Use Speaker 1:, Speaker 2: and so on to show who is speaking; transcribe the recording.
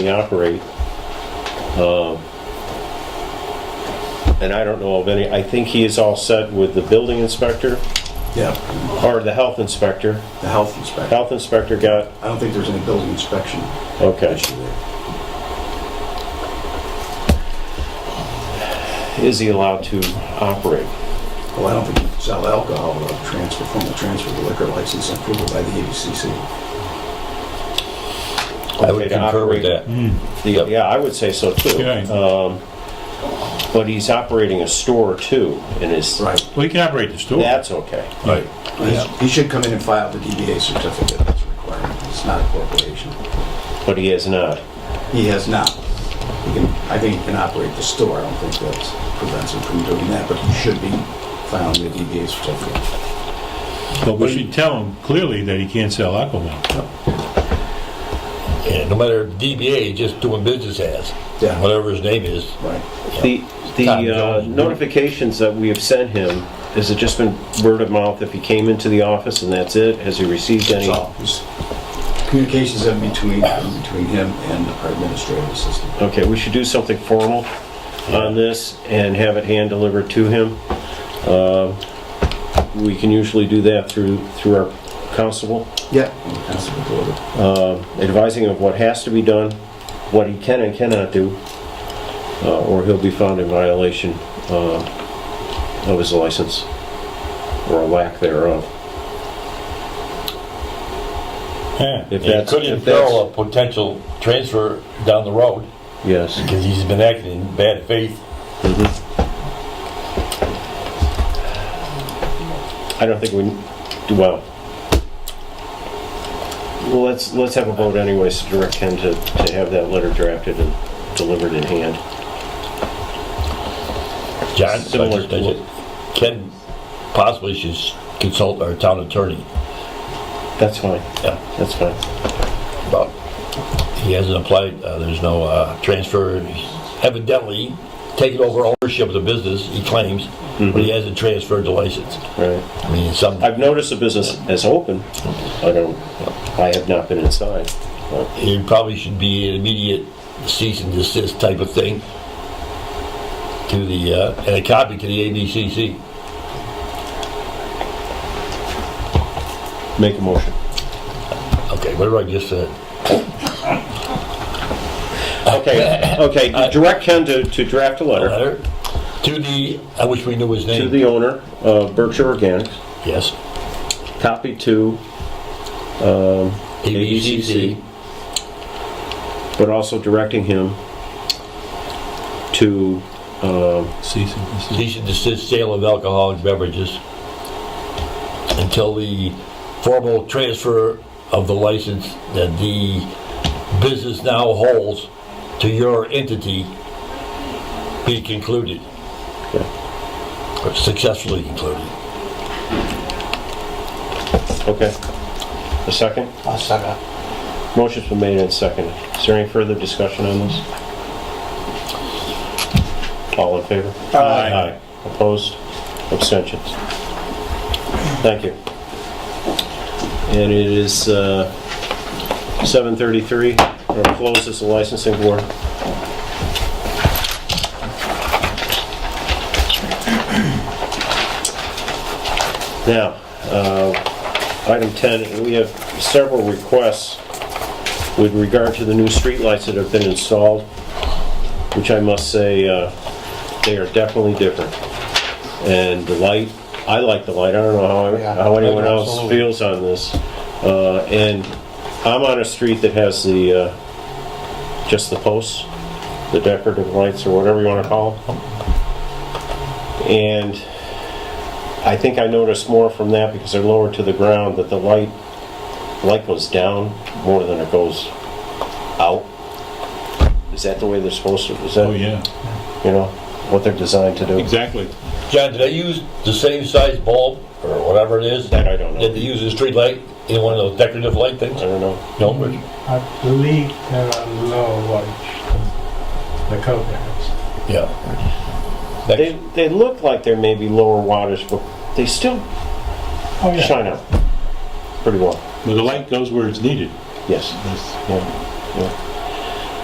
Speaker 1: we operate. Um, And I don't know of any, I think he is all set with the building inspector,
Speaker 2: Yeah,
Speaker 1: or the health inspector.
Speaker 2: the health inspector.
Speaker 1: Health inspector got,
Speaker 2: I don't think there's any building inspection
Speaker 1: okay.
Speaker 2: issue there.
Speaker 1: Is he allowed to operate?
Speaker 2: Well, I don't think you can sell alcohol without transfer, formal transfer of the liquor license and approval by the ABCC.
Speaker 3: I would concur with that.
Speaker 1: Mm. The- Yeah, I would say so too.
Speaker 4: Yeah.
Speaker 1: Um, But he's operating a store too, and is,
Speaker 2: Right.
Speaker 4: Well, he can operate the store.
Speaker 1: that's okay.
Speaker 4: Right.
Speaker 2: He's- He should come in and file the DBA certificate, that's a requirement. It's not a corporation.
Speaker 1: But he is not.
Speaker 2: He has not. He can, I think he can operate the store, I don't think that prevents him from doing that, but he should be filing the DBA certificate.
Speaker 4: But we should tell him clearly that he can't sell alcohol.
Speaker 3: Yeah, no matter DBA, just doing business as,
Speaker 2: Yeah.
Speaker 3: whatever his name is.
Speaker 2: Right.
Speaker 1: The, the
Speaker 3: Tom
Speaker 1: uh,
Speaker 3: Jones.
Speaker 1: notifications that we have sent him, has it just been word of mouth if he came into the office and that's it? Has he received any?
Speaker 2: That's all. There's Communications in between, in between him and our administrative assistant.
Speaker 1: Okay, we should do something formal on this and have it hand delivered to him. Uh, We can usually do that through, through our constable,
Speaker 2: Yeah. And the constable delivered.
Speaker 1: advising him of what has to be done, what he can and cannot do, uh, or he'll be found in violation uh, of his license or a lack thereof.
Speaker 4: Yeah.
Speaker 1: If
Speaker 3: It
Speaker 1: that's,
Speaker 3: could
Speaker 1: if that's,
Speaker 3: imperil a potential transfer down the road,
Speaker 1: yes.
Speaker 3: because he's been acting in bad faith.
Speaker 1: Mm-hmm. I don't think we, do well, well, let's, let's have a vote anyways to direct him to, to have that letter drafted and delivered in hand.
Speaker 3: John,
Speaker 1: Similar
Speaker 3: I
Speaker 1: to what-
Speaker 3: just- Ken possibly should consult our town attorney
Speaker 1: That's fine.
Speaker 3: Yeah.
Speaker 1: That's fine.
Speaker 3: about, he hasn't applied, uh, there's no, uh, transfer. He's Evidently, taking over ownership of the business, he claims,
Speaker 1: Mm-hmm.
Speaker 3: but he hasn't transferred the license.
Speaker 1: Right.
Speaker 3: I mean, some,
Speaker 1: I've noticed the business is open. I don't, I have not been inside. but-
Speaker 3: It probably should be an immediate cease and desist type of thing to the, uh, and a copy to the ABCC.
Speaker 1: Make a motion.
Speaker 3: Okay, whatever I just said.
Speaker 1: Okay, okay, direct Ken to, to draft a
Speaker 3: A
Speaker 1: letter
Speaker 3: letter to the, I wish we knew his
Speaker 1: to
Speaker 3: name.
Speaker 1: the owner of Berkshire Organics,
Speaker 3: Yes,
Speaker 1: copy to
Speaker 3: ABCC.
Speaker 1: but also directing him to, um,
Speaker 4: Cease and desist.
Speaker 3: Cease and desist sale of alcoholic beverages until the formal transfer of the license that the business now holds to your entity be concluded. Or Successfully concluded.
Speaker 1: okay. A second?
Speaker 2: I'll second.
Speaker 1: Motion's been made and seconded. Is there any further discussion on this? All in favor?
Speaker 4: Aye.
Speaker 1: Opposed? Abstentions? Thank you. And it is uh, 7:33. We're gonna close as the licensing board. Now, uh, item 10, we have several requests with regard to the new streetlights that have been installed, which I must say, uh, they are definitely different. And the light, I like the light, I don't know how,
Speaker 5: Yeah,
Speaker 1: how anyone else
Speaker 5: absolutely.
Speaker 1: feels on this. Uh, And I'm on a street that has the, uh, just the posts, the decorative lights, or whatever you want to call them. And I think I noticed more from that because they're lower to the ground, that the light, light goes down more than it goes out. Is that the way they're supposed to, is that,
Speaker 4: Oh,
Speaker 1: you
Speaker 4: yeah,
Speaker 1: know, what they're designed to do?
Speaker 4: exactly.
Speaker 3: John, did I use the same size bulb or whatever it is?
Speaker 1: That I don't know.
Speaker 3: Did they use a street light in one of those decorative light
Speaker 1: I
Speaker 3: things?
Speaker 1: don't know.
Speaker 3: No, but-
Speaker 5: I believe there are no lights, the coconuts.
Speaker 3: yeah.
Speaker 1: They, they look like they're maybe lower wattage, but they still
Speaker 5: Oh, yeah.
Speaker 1: shine out pretty well.
Speaker 4: But the light goes where it's needed.
Speaker 1: Yes,
Speaker 4: That's-
Speaker 1: yeah, yeah.